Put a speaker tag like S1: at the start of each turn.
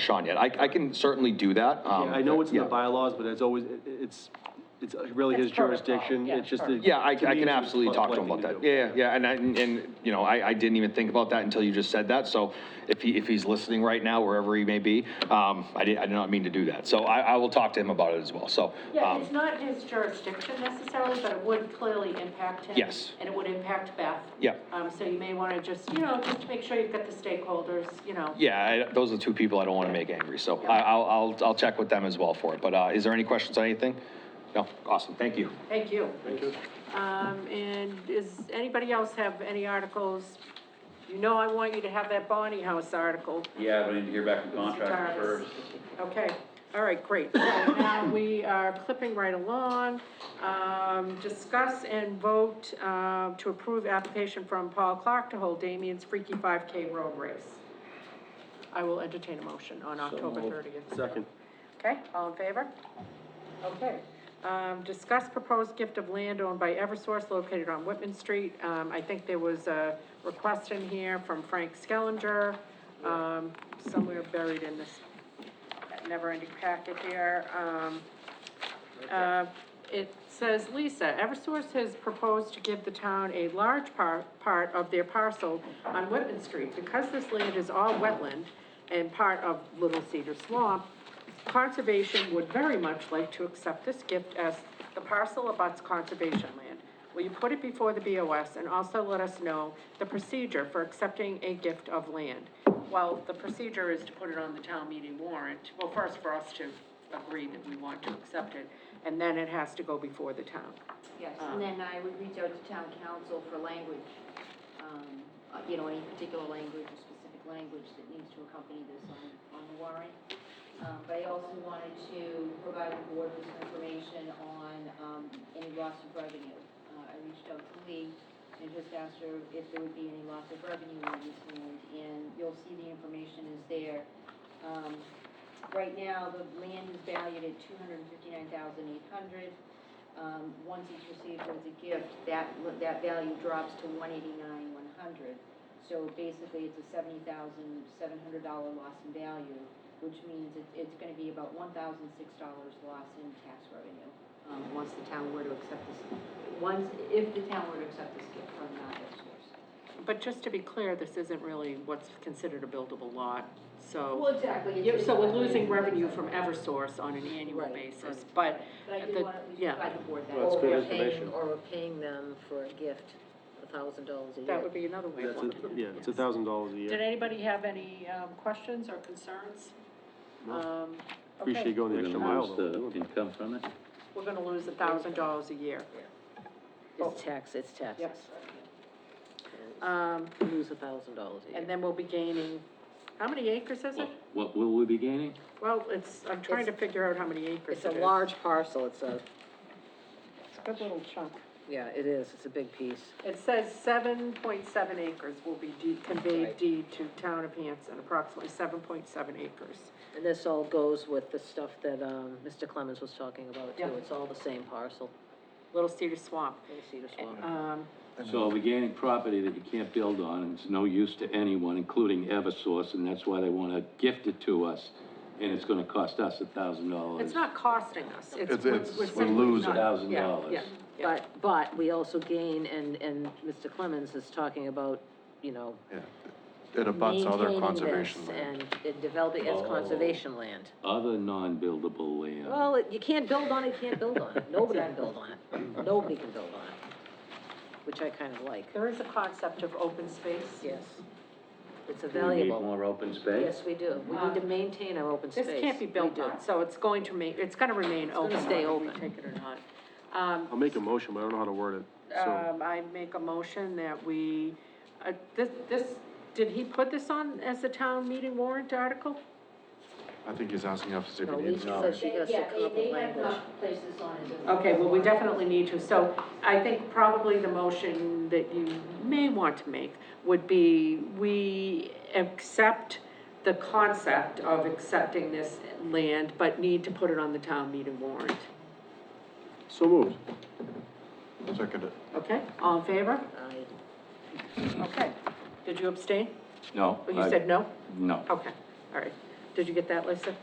S1: Sean yet. I, I can certainly do that. um,
S2: I know it's in the
S1: yeah.
S2: bylaws, but it's always, it- it's, it's really his
S3: It's protocol,
S2: jurisdiction,
S3: yeah,
S2: it's just.
S3: protocol.
S1: Yeah, I, I
S2: to me,
S1: can
S2: it's just
S1: absolutely
S2: polite
S1: talk to him
S2: thing
S1: about that.
S2: do.
S1: Yeah, yeah, and, I- and, and, you know, I, I didn't even think about that until you just said that, so if he, if he's listening right now, wherever he may be, um, I did, I did not mean to do that, so I, I will talk to him about it as well, so.
S3: Yeah,
S1: um,
S3: it's not his jurisdiction necessarily, but it would clearly impact him.
S1: Yes.
S3: And it would impact Beth.
S1: Yeah.
S3: Um, so you may want to just, you know, just make sure you've got the stakeholders, you know.
S1: Yeah, I, those are the two people I don't want to make angry, so I, I'll, I'll, I'll check with them as well for it, but, uh, is there any questions on anything? No, awesome, thank you.
S3: Thank you. Thank you. Um, and is, anybody else have any articles? You know I want you to have that Bonnie House article.
S4: Yeah, but I need to hear back from
S3: Mr.
S4: contractor
S3: Jarvis.
S4: first.
S3: Okay, all right, great. So now we are clipping right along. Um, discuss and vote, uh, to approve application from Paul Clark to hold Damien's Freaky Five K Road Race. I will entertain a motion on October thirtieth.
S2: Second.
S3: Okay, all in favor? Okay. Um, discuss proposed gift of land owned by Eversource located on Whitman Street. Um, I think there was a request in here from Frank Skellinger, um, somewhere buried in this never-ending packet here. Um, uh, it says, Lisa, Eversource has proposed to give the town a large par, part of their parcel on Whitman Street. Because this land is all wetland and part of Little Cedar Swamp, conservation would very much like to accept this gift as the parcel abuts conservation land. Will you put it before the BOS and also let us know the procedure for accepting a gift of land? Well, the procedure is to put it on the town meeting warrant, well, first for us to agree that we want to accept it, and then it has to go before the town.
S5: Yes, and then I would reach out to town council for language, um, uh, you know, any particular language or specific language that needs to accompany this on, on the warrant. Um, but I also wanted to provide the board with some information on, um, any loss of revenue. Uh, I reached out to Lee and just asked her if there would be any loss of revenue on this land, and you'll see the information is there. Um, right now, the land is valued at two hundred and fifty-nine thousand eight hundred um, once it's received as a gift, that, that value drops to one eighty-nine, one hundred. So basically, it's a seventy thousand, seven hundred dollar loss in value, which means it, it's gonna be about one thousand, six dollars loss in tax revenue, um, once the town were to accept this, once, if the town were to accept this gift from the source.
S3: But just to be clear, this isn't really what's considered a buildable lot, so.
S5: Well, exactly.
S3: Yeah, so we're losing revenue from Eversource on an annual
S6: Right,
S3: basis,
S6: right.
S3: but
S5: But I did
S3: the-
S5: want to at least
S3: yeah.
S5: provide the board that.
S2: Well, it's
S6: Or
S2: good
S6: we're paying,
S2: information.
S6: or we're paying them for a gift, a thousand dollars a year.
S3: that would be another way of
S2: That's, a-
S3: looking at it.
S2: yeah, it's a
S3: yes.
S2: thousand dollars a
S3: Did
S2: year.
S3: anybody have any, um, questions or concerns?
S2: No.
S3: Um, okay,
S2: Appreciate going the
S4: We're
S2: extra
S4: gonna
S2: mile.
S4: lose
S2: though, doing
S4: the
S2: that.
S4: income from it?
S3: we're gonna lose a thousand dollars a year.
S5: Oh.
S6: It's tax, it's taxes.
S3: Um,
S6: We Lose a thousand dollars a year.
S3: and then we'll be gaining, how many acres is it?
S4: What- What will we be gaining?
S3: Well, it's, I'm trying to figure out how many acres
S6: It's
S3: it
S6: a
S3: is.
S6: large parcel, it's a,
S3: It's a good little chunk.
S6: yeah, it is, it's a big piece.
S3: It says seven point seven acres will be deed- conveyed
S6: Right.
S3: deed to town of Hanson, approximately seven point seven acres.
S6: And this all goes with the stuff that, um, Mr. Clemens was talking about too,
S3: Yeah.
S6: it's all the same parcel,
S3: Little Cedar Swamp.
S6: Little Cedar Swamp.
S3: Um,
S4: So we're gaining property that you can't build on, and it's no use to anyone, including Eversource, and that's why they wanna gift it to us, and it's gonna cost us a thousand dollars.
S3: it's not costing us, it's,
S7: It's-
S3: we're
S7: it's-
S3: we're
S7: we're
S3: simply
S7: losing.
S3: not-
S4: Thousand
S3: yeah,
S4: dollars.
S3: yeah, yeah.
S6: But, but we also gain, and, and Mr. Clemens is talking about, you know,
S7: It abuts other
S6: maintaining
S7: conservation
S6: this
S7: land.
S6: And and developing it as
S4: Oh.
S6: conservation land.
S4: Other non-buildable land.
S6: Well, it- you can't build on it, you can't build on it. Nobody can build on it. Nobody can build on it, which I kind of like.
S3: There is a concept of open space.
S6: Yes. It's a
S4: Do we need
S6: valuable.
S4: more open space?
S6: Yes, we do. We need to maintain our open space.
S3: Um, This can't be
S6: We
S3: built
S6: do.
S3: on, so it's going to remain, it's gonna remain
S6: gonna
S3: open,
S6: stay
S3: whether we
S6: open.
S3: take it or not. Um,
S2: I'll make a motion, but I don't know how to word it, so.
S3: Um, I make a motion that we, uh, this, this, did he put this on as a town meeting warrant article?
S7: I think he's asking us if
S6: No,
S7: we need
S6: Lisa says she has to
S5: Yeah,
S6: come
S5: they,
S6: up
S5: they
S6: with
S5: have
S6: language.
S5: not placed this on as a.
S3: Okay, well, we definitely need to, so I think probably the motion that you may want to make would be, we accept the concept of accepting this land, but need to put it on the town meeting warrant,
S2: So moved.
S7: Second it.
S3: okay? All in favor?
S6: I-
S3: Okay. Did you abstain?
S4: No.
S3: Well, you
S4: I-
S3: said no?
S4: No.
S3: Okay, all right. Did Did you get that, Lisa?